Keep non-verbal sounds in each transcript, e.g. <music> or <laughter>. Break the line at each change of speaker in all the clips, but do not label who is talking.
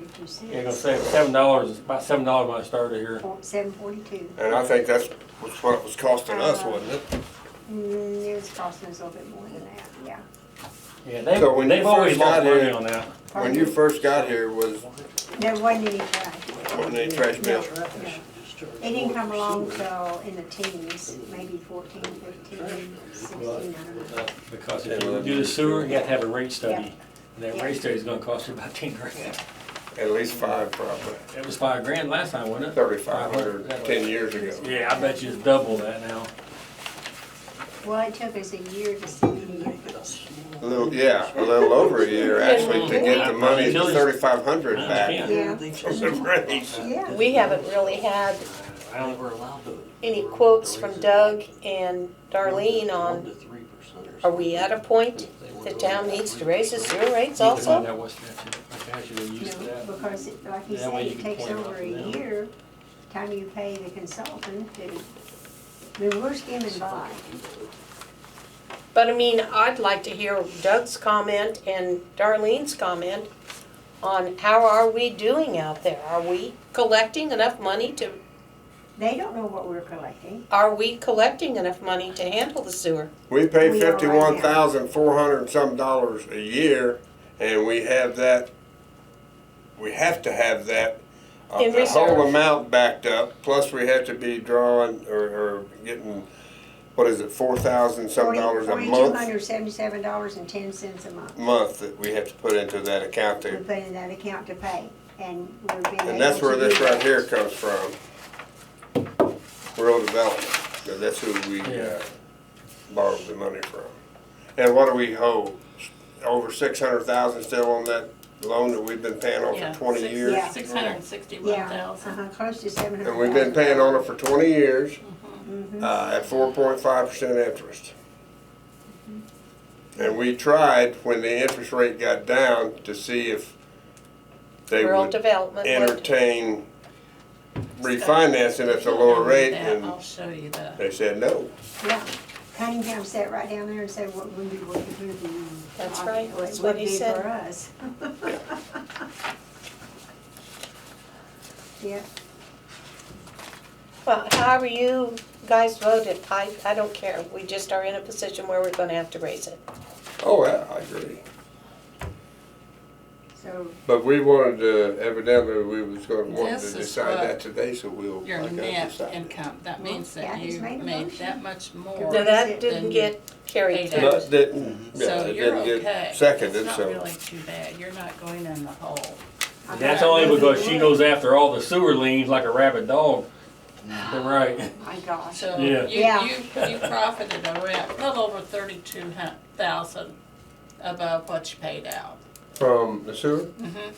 fifty-six.
Yeah, gonna say seven dollars, about seven dollars when I started here.
Seven forty-two.
And I think that's was what it was costing us, wasn't it?
Mm, it was costing us a little bit more than that, yeah.
Yeah, they,
So when you
they've always
first
lost
got
money
here-
on that.
When you first got here was,
There wasn't any trash.
wasn't any trash bill.
It didn't come along till in the teens, maybe fourteen, fifteen, sixteen, I don't know.
Because if you do the sewer, you have to have a rate study. And that
Yeah.
rate study's gonna cost you about <laughs> ten grand.
At least five probably,
It was five grand last time, wasn't it?
thirty-five
Five
hundred,
that was-
ten years ago.
Yeah, I bet you it's double that now.
Well, it took us a year to see any,
A little, yeah, a little over a year actually to get the money,
Yeah.
thirty-five hundred back
Yeah.
yeah,
from the raise.
yeah.
We haven't really had
I don't,
any quotes from Doug and Darlene on, are we at a point the town needs to raise the sewer rates also?
That was statute, I actually was used to
No,
that.
because it- like you
That way
say,
you
it
can
takes
point it out
over a
to them.
year, time you pay the consultant to, I mean, we're skimming by.
But I mean, I'd like to hear Doug's comment and Darlene's comment on how are we doing out there? Are we collecting enough money to,
They don't know what we're collecting.
are we collecting enough money to handle the sewer?
We pay
We are right now.
fifty-one thousand four hundred and some dollars a year and we have that, we have to have that. uh,
In
The whole
reserve.
amount backed up, plus we have to be drawing or, or getting, what is it, four thousand some dollars a
Forty-two
month?
hundred seventy-seven dollars and ten cents a month
month that we have to put into that account
we
there.
put in that account to pay, and we're being
And that's
able
where
to
this
do
right
that.
here comes from. Rural development, Now, that's who we uh,
Yeah.
borrowed the money from. And what do we hold? Over six hundred thousand still on that loan that we've been paying on
Yeah,
for twenty
six-
years?
Yeah.
Six hundred and
Yeah,
sixty-one thousand.
uh-huh, close to seven hundred.
And we've been paying on it for twenty years,
Mm-hmm.
uh, at four point five percent interest. And we tried, when the interest rate got down, to see if they would.
Rural development. would-
entertain refinancing at the lower rate, and
I'll show you that.
they said no.
Yeah, Cunningham sat right down there and said, what would be, what would be.
That's right,
what
that's what
would
he
be
said.
For us. <laughs> Yeah,
Well, however you guys voted, I, I don't care. We just are in a position where we're gonna have to raise it.
Oh, I, I agree.
so,
But we wanted to, evidently, we was gonna want to
This is
decide
what
that today, so we'll,
Your
like I
net
decided.
income, that
Well,
means
yeah,
that
he's
you
made a
made
motion.
that much
Now,
more.
that didn't get carried
Paid
through.
out.
No, it didn't, yeah,
So
it
you're
didn't
okay.
get
It's
seconded,
not
so.
really too bad. You're not going in the hole.
I'm
That's
not
only because she
really-
goes after all the sewer liens like a rabid dog. You're right.
My gosh,
So you,
Yeah.
you,
Yeah.
you profited around, a little over thirty-two hun- thousand above what you paid out.
From the sewer?
Mhm.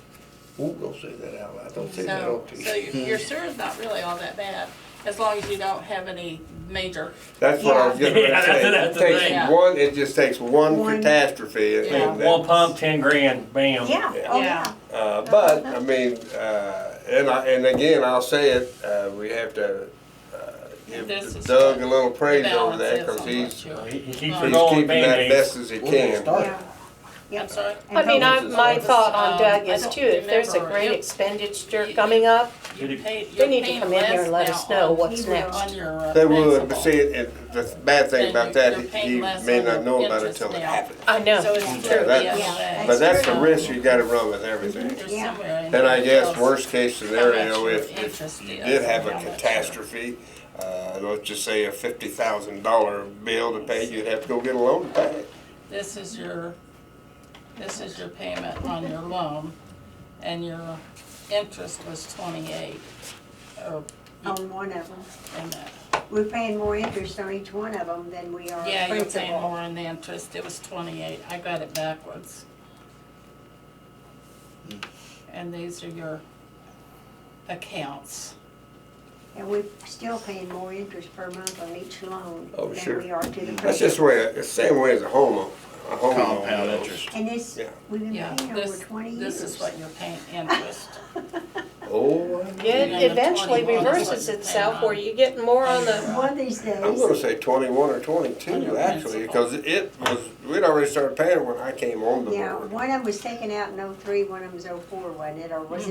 Ooh, don't say that out loud, don't say that
So,
on
so your
TV.
your sewer's not really all that bad, as long as you don't have any major,
That's what I was
Yeah.
getting ready
Yeah,
to
that's-
say.
that's
It
the
takes
thing.
one, it just takes one
One.
catastrophe. and
Yeah.
that-
One pump, ten grand,
yeah,
bam.
Yeah.
oh, yeah.
Yeah.
Uh, but I mean, uh, and I, and again, I'll say it. Uh, we have to uh,
This
give
is
Doug
what
a little praise over
balance
that
is on
because
what
he's
you-
He he keeps her
he's
going
keeping that
band-aids.
best as he
We're gonna
can.
start.
Yeah. Yep.
I'm sorry.
And
I mean,
hope-
I, my thought on Doug is
Um, I
too, if there's a
don't
great
remember.
expenditure coming up,
You paid,
they
you're
need to
paying
come in here
less
and let us
now
know
on,
what's
He will.
next.
on your uh,
They would, but
principal.
see, it, it, the bad thing
Then
about
you-
that,
you're
is
paying
you
less
may
on
not
the
know about it
interest
until it
now.
happens.
I
So
know,
it's
Yeah,
true,
that-
Yeah.
yes.
But that's the
true.
risk you got to run with everything.
There's
Yeah.
somewhere in
And I
there
guess
tells
worst case
how
scenario,
much
if,
your
if
interest
you
is
did have
and
a
how much-
catastrophe, uh, let's just say a fifty thousand dollar bill to pay, you'd have to go get a loan to pay it.
This is your, this is your payment on your loan, and your interest was twenty-eight. Oh,
On one of them,
and that-
we're paying more interest on each one of them than we are
Yeah, you're paying
principal.
more on the interest, it was twenty-eight, I got it backwards. And these are your accounts.
And we're still paying more interest per month on each loan
Oh,
than
sure.
we are to the
That's just the
principal.
way, it's the same way as a home loan. A home loan
Compound
goes.
interest.
And this,
Yeah.
we've been
Yeah,
paying over
this,
twenty years.
this is what you're paying interest.
Oh, I-
it eventually reverses itself where you get more on the,
One of these days.
I'm gonna say twenty-one or twenty-two, actually, because it was, we'd already started paying when I came on the
Yeah,
board.
oh one of them was taken out in oh-three, one of them was oh-four, wasn't it, or was it